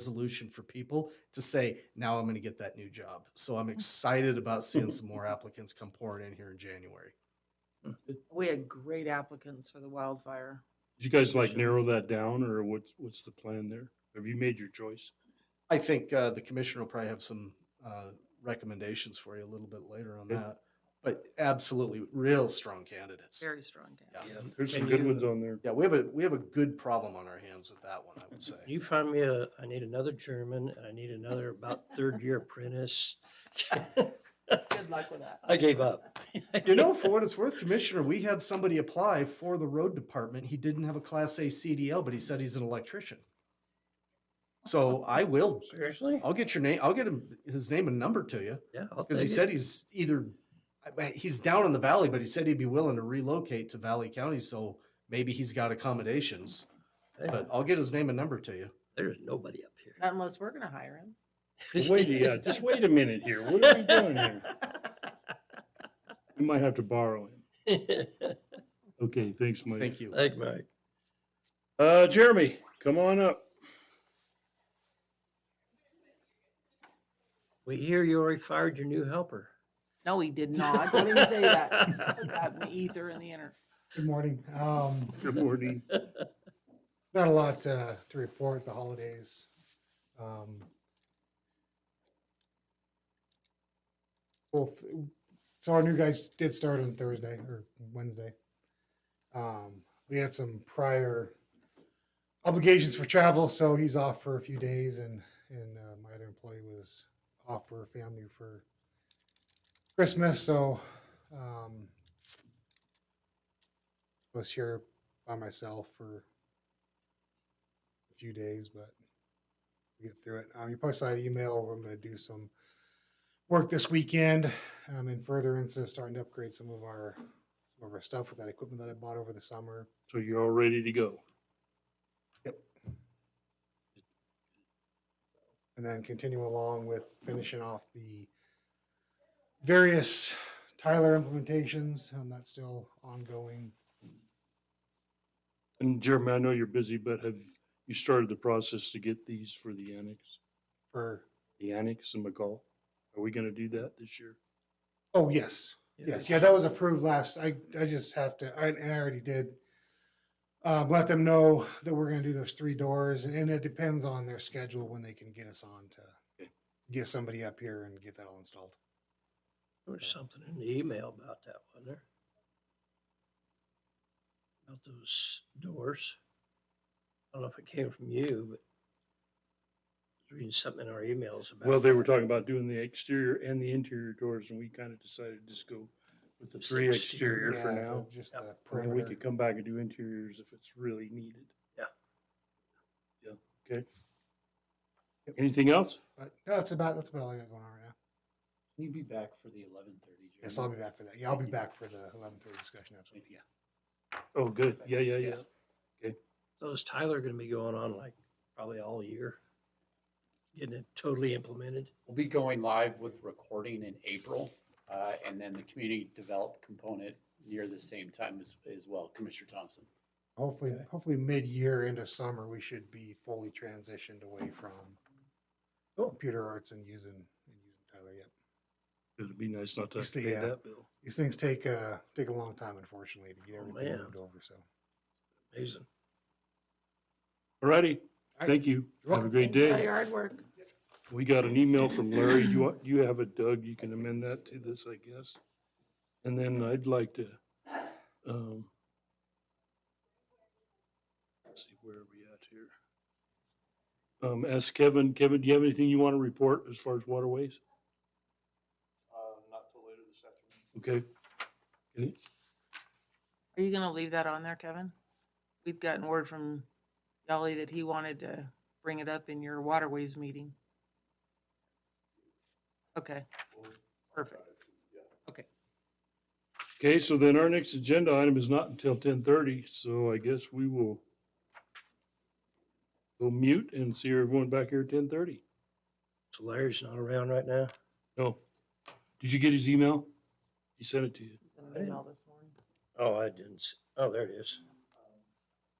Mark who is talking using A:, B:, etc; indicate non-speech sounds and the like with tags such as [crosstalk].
A: resolution for people to say, now I'm going to get that new job. So I'm excited about seeing some more applicants come pouring in here in January.
B: We had great applicants for the wildfire.
C: Did you guys like narrow
B: Positions.
C: that down or what's, what's the plan there? Have you made your choice?
A: I think uh, the commissioner will probably have some uh, recommendations for you a little bit later on
C: Yeah.
A: that. But absolutely, real strong candidates.
B: Very strong candidates.
A: Yeah.
C: There's some
D: And
C: good
D: you-
C: ones on there.
A: Yeah, we have a we have a good problem on our hands with that one. I would
C: [laughs]
A: say.
D: You find me a, I need another German and I need another about third
A: [laughs]
D: year apprentice.
B: Good luck with that.
D: [laughs] I gave up.
A: You know, for what it's worth, Commissioner, we had somebody apply for the road department. He didn't have a Class A CDL, but he said he's an electrician. So I will.
D: Seriously?
A: I'll get your name. I'll get him his name and number to you
D: Yeah. I'll
A: because he
D: take it.
A: said he's either I- I- he's down in the valley, but he said he'd be willing to relocate to Valley County. So maybe he's got accommodations.
D: Hey,
A: But I'll get his name and number to you.
D: There's nobody up
B: Not unless we're gonna hire him.
D: here.
C: Wait, yeah, just wait a minute here. What are we doing here? We might have to borrow him. Okay, thanks, Mike.
A: Thank you.
D: [laughs] Thank Mike.
C: Uh, Jeremy, come on up.
D: We hear you already fired your new
B: [laughs]
D: helper.
B: No, he [laughs] did not. Don't even say that. Put
D: [laughs]
B: that in the ether and the inner.
E: Good morning. Um,
C: Good morning.
E: not a lot uh, to report, the holidays. Um, both, so our new guys did start on Thursday or Wednesday. Um, we had some prior obligations for travel, so he's off for a few days, and and uh, my other employee was off for family for Christmas, so um, was here by myself for a few days, but we get through it. Um, you probably saw an email where I'm going to do some work this weekend um, in furtherance of starting to upgrade some of our some of our stuff with that equipment that I bought over the summer.
C: So you're all ready to go.
E: and then continue along with finishing off the various Tyler implementations, and that's still ongoing.
C: And Jeremy, I know you're busy, but have you started the process to get these for the annex?
E: For
C: The annex and McCall? Are we gonna do that this year?
E: oh yes, yes, yeah, that was approved last. I I just have to, I, and I already did. Um, let them know that we're going to do those three doors, and it depends on their schedule when they can get us on to get somebody up here and get that all installed.
D: There was something in the email about that, wasn't there? About those doors. I don't know if it came from you, but I was reading something in our emails about.
C: Well, they were talking about doing the exterior and the interior doors, and we kind of decided to just go with the
D: Just
C: three
D: exterior.
C: exterior
E: Yeah,
C: for
E: the-
C: now.
E: just
D: Yep.
E: the
C: And then we
E: perimeter.
C: could come back and do interiors if it's really needed.
D: Yeah.
C: Yeah, okay.
E: Yep.
C: Anything else?
E: But no, that's about that's about all I got going on right now.
F: Can you be back for the eleven thirty?
E: Yes, I'll be back for that. Yeah, I'll be back for the eleven thirty discussion. Absolutely. Yeah.
C: Oh, good. Yeah, yeah, yeah.
E: Yeah.
D: So is Tyler going to be going on like probably all year? Getting it totally implemented?
F: We'll be going live with recording in April, uh, and then the community develop component near the same time as, as well, Commissioner Thompson.
E: Hopefully,
D: Okay.
E: hopefully mid-year, end of summer, we should be fully transitioned away from
D: Cool.
E: computer arts and using and using Tyler. Yep.
C: It'd be nice not to have
E: Just
C: to
E: the,
C: pay
E: uh,
C: that bill.
E: These things take uh take a long time, unfortunately, to get
D: Oh,
E: everything
D: man.
E: moved over. So
D: Amazing.
C: Alrighty,
E: right.
C: thank you.
E: You're
C: Have a
E: welcome.
C: great
B: Thank you for
C: day.
B: Your hard work.
C: We got an email from Larry. You, want- you have it, Doug. You can amend that to this, I guess. And then I'd like to, um, let's see, where are we at here? Um, ask Kevin. Kevin, do you have anything you want to report as far as waterways? Uh, not till later this afternoon. Okay. Okay.
B: Are you gonna leave that on there, Kevin? We've gotten word from Yali that he wanted to bring it up in your waterways meeting. Okay, perfect.
C: Okay, so then our next agenda item is not until ten thirty, so I guess we will go mute and see everyone back here at ten thirty.
D: So Larry's not around right now?
C: No. Oh. Did you get his email? He sent it to you.
B: Sent an email this morning.
D: Oh, I didn't. s- Oh, there it is.